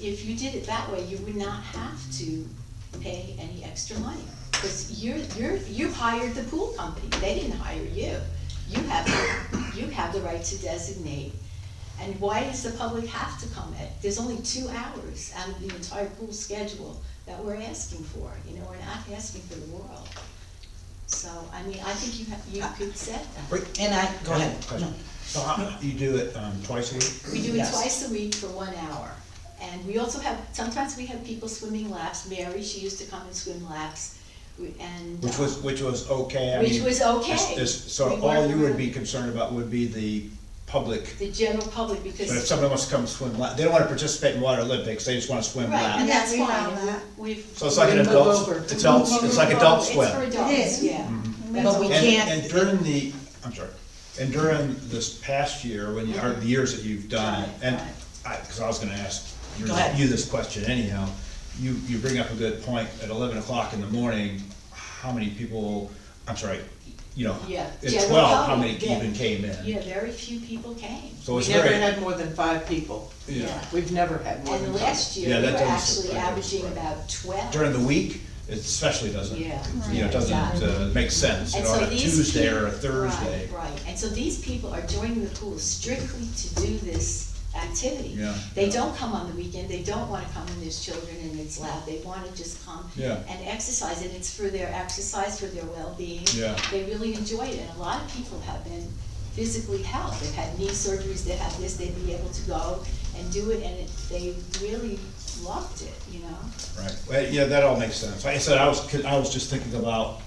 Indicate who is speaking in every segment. Speaker 1: if you did it that way, you would not have to pay any extra money. Because you're, you're, you hired the pool company, they didn't hire you. You have, the- you have the right to designate. And why does the public have to come at, there's only two hours out of the entire pool schedule that we're asking for, you know, we're not asking for the world. So, I mean, I think you have, you could set that.
Speaker 2: Wait, And I, go ahead. No.
Speaker 3: So how, you do it, um, twice a week?
Speaker 1: We do it
Speaker 2: Yes.
Speaker 1: twice a week for one hour. And we also have, sometimes we have people swimming laps. Mary, she used to come and swim laps. We- And.
Speaker 3: Which
Speaker 1: uh,
Speaker 3: was, which was okay, I
Speaker 1: Which
Speaker 3: mean,
Speaker 1: was okay.
Speaker 3: it's- it's- So
Speaker 1: We
Speaker 3: all
Speaker 1: worked
Speaker 3: you would
Speaker 1: around
Speaker 3: be concerned about would be the public,
Speaker 1: The general public,
Speaker 3: but if
Speaker 1: because,
Speaker 3: somebody wants to come swim, la- they don't wanna participate in water Olympics, they just wanna swim
Speaker 1: right, and
Speaker 3: laps.
Speaker 1: that's
Speaker 4: Yeah, we
Speaker 1: fine.
Speaker 4: allow
Speaker 1: and we-
Speaker 4: that.
Speaker 1: We've.
Speaker 3: So it's like an
Speaker 2: We move
Speaker 3: adult,
Speaker 2: over.
Speaker 3: adults, it's like adult
Speaker 1: It's
Speaker 3: swim.
Speaker 1: for
Speaker 4: It
Speaker 1: adults,
Speaker 4: is. Mm-hmm.
Speaker 1: yeah. That's
Speaker 2: But we
Speaker 1: okay.
Speaker 3: And-
Speaker 2: can't-
Speaker 3: And during the, I'm sorry, and during this past year, when you, or the years that you've done,
Speaker 1: Right,
Speaker 3: and
Speaker 1: right.
Speaker 3: I, cause I was gonna ask your-
Speaker 2: Go ahead.
Speaker 3: you this question anyhow, you, you bring up a good point, at eleven o'clock in the morning, how many people, I'm sorry, you know,
Speaker 1: Yeah,
Speaker 3: at
Speaker 1: general
Speaker 3: twelve, how many
Speaker 1: public, yeah.
Speaker 3: even came in?
Speaker 1: Yeah, very few people came.
Speaker 3: So
Speaker 5: We
Speaker 3: it's
Speaker 5: never
Speaker 3: very,
Speaker 5: had more than five people.
Speaker 3: yeah,
Speaker 5: We've never had more than
Speaker 1: And
Speaker 5: five.
Speaker 1: last
Speaker 3: Yeah,
Speaker 1: year, we
Speaker 3: that
Speaker 1: were
Speaker 3: doesn't
Speaker 1: actually
Speaker 3: surprise me,
Speaker 1: averaging
Speaker 3: right.
Speaker 1: about twelve.
Speaker 3: during the week, it especially doesn't, you
Speaker 1: Yeah.
Speaker 3: know, it doesn't uh, make sense, you
Speaker 1: And
Speaker 3: know,
Speaker 1: so
Speaker 3: on a
Speaker 1: these
Speaker 3: Tuesday or a
Speaker 1: peop- right,
Speaker 3: Thursday.
Speaker 1: Right, and so these people are joining the pool strictly to do this activity.
Speaker 3: Yeah.
Speaker 1: They don't come on the weekend, they don't wanna come when there's children and it's loud, they wanna just come
Speaker 3: Yeah.
Speaker 1: and exercise, and it's for their exercise, for their well-being.
Speaker 3: Yeah.
Speaker 1: They really enjoy it, and a lot of people have been physically helped, they've had knee surgeries, they have this, they'd be able to go and do it, and it, they really loved it, you know?
Speaker 3: Right, well, yeah, that all makes sense. Like I said, I was, 'cause I was just thinking about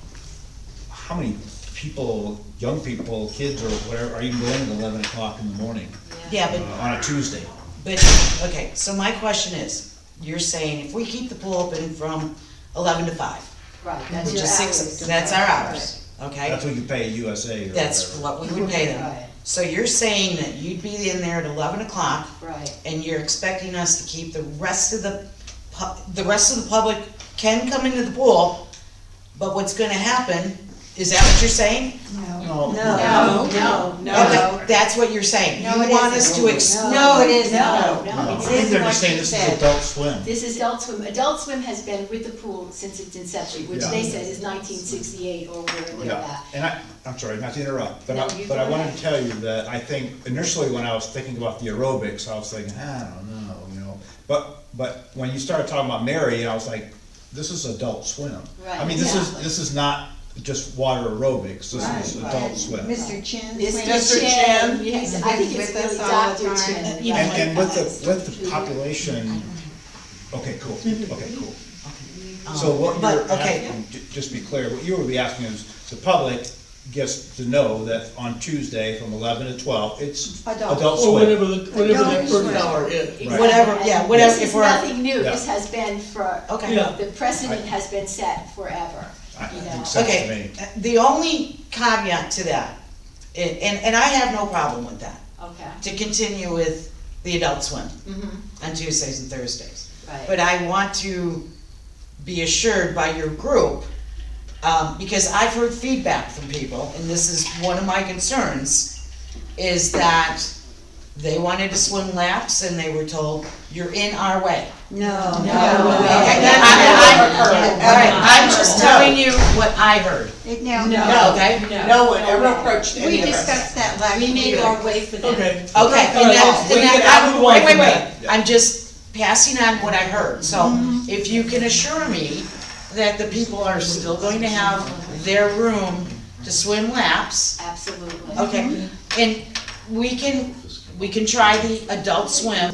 Speaker 3: how many people, young people, kids or whatever, are even going at eleven o'clock in the morning
Speaker 2: Yeah,
Speaker 3: uh,
Speaker 2: but,
Speaker 3: on a Tuesday?
Speaker 2: but, okay, so my question is, you're saying if we keep the pool open from eleven to five,
Speaker 1: Right, that's
Speaker 2: which
Speaker 1: your
Speaker 2: is
Speaker 1: hours.
Speaker 2: six, that's our hours,
Speaker 3: That's
Speaker 2: okay?
Speaker 3: what you pay USA or
Speaker 2: That's
Speaker 3: whatever.
Speaker 2: what we would pay
Speaker 1: Right.
Speaker 2: them. So you're saying that you'd be in there at eleven o'clock,
Speaker 1: Right.
Speaker 2: and you're expecting us to keep the rest of the pu- the rest of the public can come into the pool, but what's gonna happen, is that what you're saying?
Speaker 4: No.
Speaker 3: No.
Speaker 4: No.
Speaker 5: No,
Speaker 2: Okay,
Speaker 5: no,
Speaker 2: That's what you're saying,
Speaker 4: No,
Speaker 2: you
Speaker 4: it
Speaker 2: want us to
Speaker 4: isn't.
Speaker 2: ex-
Speaker 4: No.
Speaker 2: no, it isn't.
Speaker 1: No,
Speaker 3: No,
Speaker 1: no,
Speaker 3: I
Speaker 1: it
Speaker 3: think
Speaker 1: is
Speaker 3: they're
Speaker 1: what
Speaker 3: just saying
Speaker 1: you
Speaker 3: this is
Speaker 1: said.
Speaker 3: adult swim.
Speaker 1: This is Adult Swim. Adult Swim has been with the pool since its inception, which
Speaker 3: Yeah.
Speaker 1: they said is nineteen sixty-eight or wherever they're
Speaker 3: Yeah,
Speaker 1: at.
Speaker 3: and I, I'm sorry, not to interrupt, but
Speaker 1: No,
Speaker 3: I,
Speaker 1: you
Speaker 3: but
Speaker 1: go
Speaker 3: I wanted
Speaker 1: ahead.
Speaker 3: to tell you that I think initially when I was thinking about the aerobics, I was thinking, I don't know, you know. But, but when you started talking about Mary, I was like, this is adult swim. I mean, this is,
Speaker 1: Right,
Speaker 3: this is not just water aerobics, this is
Speaker 1: Right,
Speaker 3: adult
Speaker 1: right.
Speaker 3: swim.
Speaker 4: Mr. Chin.
Speaker 1: Mr.
Speaker 5: Mr.
Speaker 1: Chen,
Speaker 5: Chen
Speaker 1: yes,
Speaker 4: has
Speaker 1: I
Speaker 4: been
Speaker 1: think it's
Speaker 4: with us
Speaker 1: really
Speaker 4: all
Speaker 1: Dr.
Speaker 4: the
Speaker 1: Chen.
Speaker 4: time.
Speaker 1: right.
Speaker 3: And, and with the, with the population, okay, cool, okay, cool. So what
Speaker 2: But,
Speaker 3: you're
Speaker 2: okay.
Speaker 3: asking, ju- just be clear, what you would be asking is, the public gets to know that on Tuesday from eleven to twelve, it's
Speaker 4: Adult.
Speaker 3: adult
Speaker 6: Or
Speaker 3: swim.
Speaker 6: whatever, the- whatever that
Speaker 4: Adult
Speaker 6: first
Speaker 4: swim.
Speaker 6: hour is.
Speaker 3: Right.
Speaker 2: Whatever, yeah, whatever,
Speaker 1: This
Speaker 2: if
Speaker 1: is
Speaker 2: we're-
Speaker 1: nothing new.
Speaker 3: Yeah.
Speaker 1: This has been for,
Speaker 2: Okay.
Speaker 6: Yeah.
Speaker 1: the precedent has been set forever,
Speaker 3: I- I
Speaker 1: you
Speaker 3: think
Speaker 1: know.
Speaker 3: so. Sense to
Speaker 2: Okay, the only caveat to that, and, and and I have no problem with that,
Speaker 1: Okay,
Speaker 2: to continue with the adult swim
Speaker 1: mhm,
Speaker 2: on Tuesdays and Thursdays.
Speaker 1: right,
Speaker 2: But I want to be assured by your group, um, because I've heard feedback from people, and this is one of my concerns, is that they wanted to swim laps and they were told, you're in our way.
Speaker 4: No.
Speaker 2: Okay,
Speaker 4: No.
Speaker 2: I- I-
Speaker 4: No.
Speaker 2: All right, I'm just telling you what I heard,
Speaker 4: It- No.
Speaker 5: No.
Speaker 2: okay?
Speaker 5: no one ever approached
Speaker 4: We
Speaker 5: any of us.
Speaker 4: discussed that last year.
Speaker 7: We made our way for them.
Speaker 2: Okay,
Speaker 6: Okay.
Speaker 2: and that, and
Speaker 6: Wait, wait,
Speaker 2: that,
Speaker 6: I
Speaker 2: I'm,
Speaker 6: would like
Speaker 2: wait, wait,
Speaker 6: that.
Speaker 2: wait, I'm just passing on what I heard, so if you can assure me that the people are still going to have their room to swim laps,
Speaker 1: absolutely.
Speaker 2: okay, and we can, we can try the adult swim,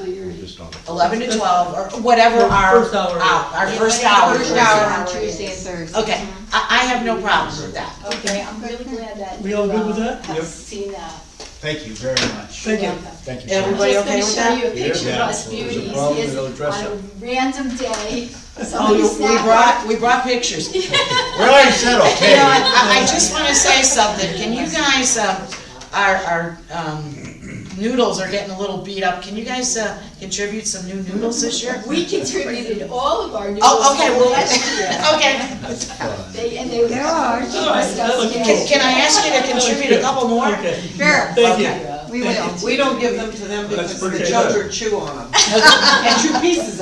Speaker 2: eleven to twelve, or whatever
Speaker 6: First
Speaker 2: our, our,
Speaker 6: hour.
Speaker 2: our
Speaker 1: Yeah,
Speaker 2: first
Speaker 1: whatever
Speaker 2: hour.
Speaker 1: the
Speaker 4: First hour on
Speaker 1: Hour is-
Speaker 4: Tuesday and Thursday.
Speaker 2: Okay, I, I have no problem with that.
Speaker 1: Okay, I'm really glad that.
Speaker 6: We all
Speaker 1: you,
Speaker 6: good with
Speaker 1: uh,
Speaker 6: that?
Speaker 1: Have
Speaker 6: Yep.
Speaker 1: seen that.
Speaker 3: Thank you very much.
Speaker 6: Thank you.
Speaker 1: Welcome.
Speaker 3: Thank you.
Speaker 1: I'm
Speaker 3: Sharon.
Speaker 2: Everybody okay with
Speaker 1: just gonna
Speaker 2: that?
Speaker 1: show you a picture of
Speaker 3: Yeah.
Speaker 1: us
Speaker 3: There's a
Speaker 1: beauties,
Speaker 3: problem,
Speaker 1: yes,
Speaker 3: they'll dress
Speaker 1: on a
Speaker 3: up.
Speaker 1: random day,
Speaker 2: Oh,
Speaker 1: somebody
Speaker 2: you- we
Speaker 1: snapped
Speaker 2: brought, we brought pictures.
Speaker 3: We already said
Speaker 2: You know,
Speaker 3: okay.
Speaker 2: I, I just wanna say something, can you guys, um, our, our, um, noodles are getting a little beat up, can you guys, uh, contribute some new noodles this year?
Speaker 1: We contributed all of our news
Speaker 2: Oh, okay,
Speaker 1: from last year.
Speaker 2: well, okay,
Speaker 1: They, and they were.
Speaker 4: There are.
Speaker 1: She was just
Speaker 2: can, can I ask you to contribute a couple more?
Speaker 6: Okay,
Speaker 4: Sure,
Speaker 6: thank you.
Speaker 1: scared.
Speaker 4: we will.
Speaker 5: We don't give them to them
Speaker 6: That's
Speaker 5: because the
Speaker 6: pretty good.
Speaker 5: children chew on them. And chew pieces